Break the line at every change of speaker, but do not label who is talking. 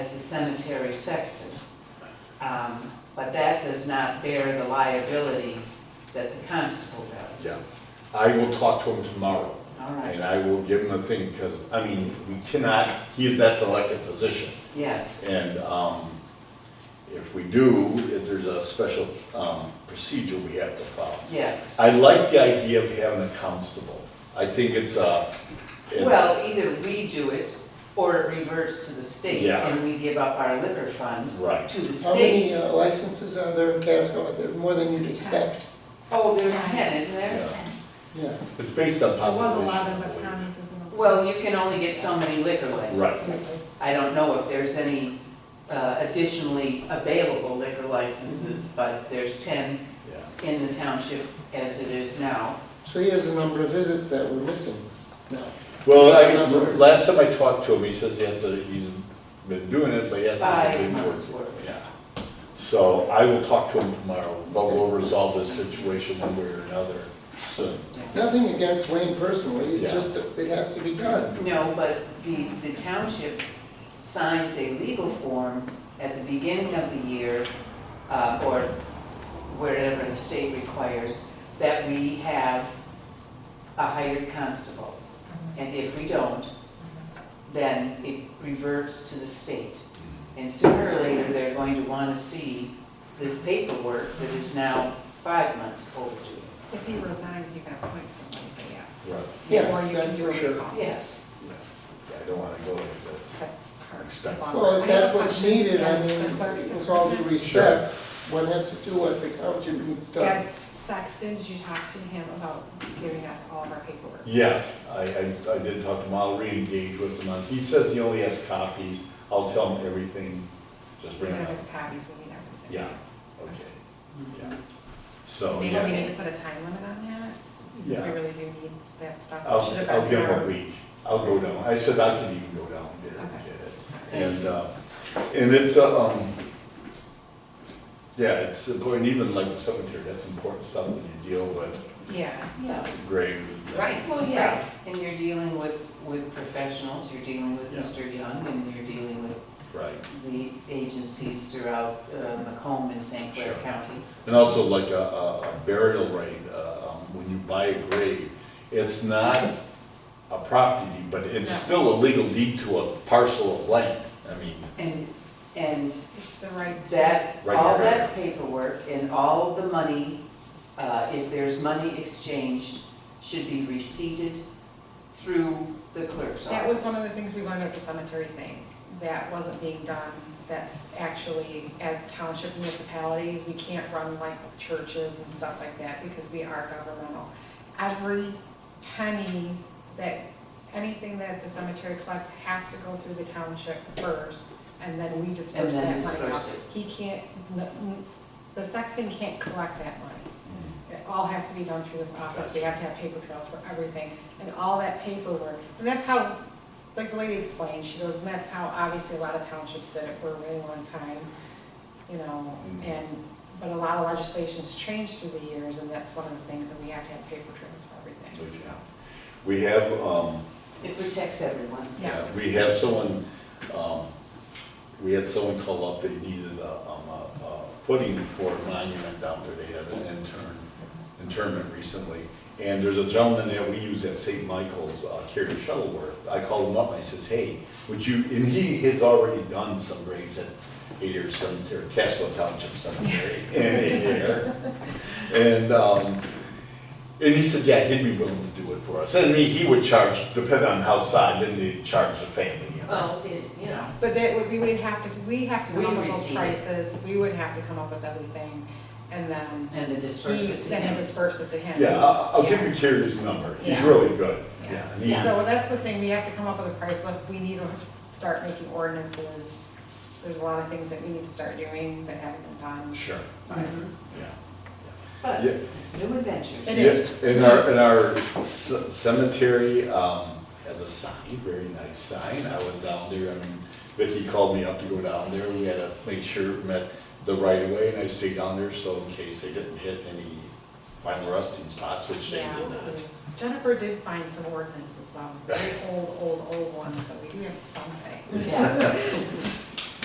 as the cemetery sexton. Um, But that does not bear the liability that the constable does.
Yeah, I will talk to him tomorrow,
All
and
right,
I will give him a thing, because, I mean, we cannot, he's, that's elected position.
yes,
And, um, if we do, if there's a special, um, procedure we have to follow.
yes.
I like the idea of having a constable. I think it's a, it's,
Well, either we do it or it reverts to the state
Yeah.
and we give up our liver fund
right.
to the
How
state.
many uh, licenses are there in Casco? There are More than you'd expect,
Oh, there's ten, isn't there?
yeah.
yeah.
It's based on
There was a
population.
lot of
I believe.
attorneys as well.
Well, you can only get so many liquor licenses. I don't know if there's any uh, additionally available liquor licenses, but there's ten
Yeah.
in the township as it is now.
So he has a number of visits that we're missing now.
Well, I, guess last time I talked to him, he says, yes, uh, he's been doing it, but he hasn't
Five
been doing
months'
it.
worth.
Yeah. So I will talk to him tomorrow, but we'll resolve this situation one way or another soon.
Nothing against Wayne personally, it's
Yeah.
just, that it has to be done.
No, but the, the township signs a legal form at the beginning of the year, uh, or wherever the state requires, that we have a hired constable. And if we don't, then it reverts to the state. And sooner or later, they're going to want to see this paperwork that is now five months overdue.
If he resigns, you can appoint somebody, but yeah.
Right.
Or
Yes,
you can
that's
do
for
a
sure.
recall.
Yes,
Yeah, I don't wanna go like this.
That's hard.
Expensive.
That's
Well,
all.
if that's
I have
what's
questions,
needed, I
yes,
mean,
the clerk's
with all due
department.
respect, one has to do what the township needs done.
As Sexton, you talked to him about giving us all of our paperwork.
Yes, I, I, I did talk to him, I'll re-engage with him on, he says he only has copies, I'll tell him everything, just bring
Even
it
if
up.
it's copies, we need everything.
Yeah, okay, yeah.
Oh,
So,
Maybe we
yeah,
need to put a time limit on that, because we
Yeah.
really do need that stuff.
I'll,
Should have
I'll
gotten
give him
our-
a week, I'll go down, I said I could even go down there and get it. And, uh, and it's, a, um, yeah, it's important, even like the cemetery, that's important stuff that you deal with,
Yeah.
yeah.
grave.
Right.
Well, yeah, and you're dealing with, with professionals, you're dealing with
Yeah.
Mr. Young, and you're dealing with
Right,
the agencies throughout uh, Macomb and St. Clair
Sure.
County.
and also like a, a a burial rate, uh, um, when you buy a grave, it's not a property, but it's
No.
still a legal deed to a parcel of land, I mean,
And, and
It's the right.
that,
Right,
all
right,
that paperwork and all the money, uh, if there's money exchanged, should be receipted through the clerk's office.
That was one of the things we learned at the cemetery thing, that wasn't being done. That's actually, as township municipalities, we can't run like churches and stuff like that because we are governmental. Every penny that, anything that the cemetery collects has to go through the township first, and then we
And
disperse that
then
money out.
disperse
He can't, n- n- the sexton can't collect that money. It all has to be done through this office, we have to have paper trails for everything, and all that paperwork. And that's how, like the lady explained, she goes, and that's how obviously a lot of townships did it for a really long time, you know,
Mhm.
and, but a lot of legislation's changed through the years, and that's one of the things, that we have to have paper trails for everything, so.
we have, um,
It protects everyone.
Yeah,
Yes.
we have someone, um, we had someone call up, they needed a, um, a, a footing for a monument down there, they had an intern, internment recently. And there's a gentleman that we use at St. Michael's, uh, Kerry Shuttleworth, I called him up, and I says, hey, would you, and he has already done some graves at Adair Cemetery, Castle Township Cemetery, in Adair. And, um, and he said, yeah, he'd be willing to do it for us. And he, he would charge, depending on how side, then they'd charge the family, you know.
Oh,
Well, it, you know,
But that would, we would have to, we have to
We
come up with those
receive it.
prices, we would have to come up with everything, and then.
and the
he-
disperse it to
Then he
him.
disperse it to him.
Yeah, I'll, I'll give
Yeah.
you Kerry's number. He's
Yeah.
really good.
Yeah.
Yeah. and
Yeah.
he's-
So that's the thing, we have to come up with a price list, we need to start making ordinances. There's a lot of things that we need to start doing that haven't been done.
Sure,
Mm-hmm.
Mhm.
yeah.
But
Yeah.
it's new adventures.
It
Yeah,
is.
In our, in our c- cemetery, um, has a sign, very nice sign, I was down there, I mean, Vicky called me up to go down there, we had to make sure it met the right of way, and I stayed down there, so in case they didn't hit any final resting spots, which they
Yeah.
did not.
Jennifer did find some ordinances though, very old, old, old ones, so we do have something.
Yeah.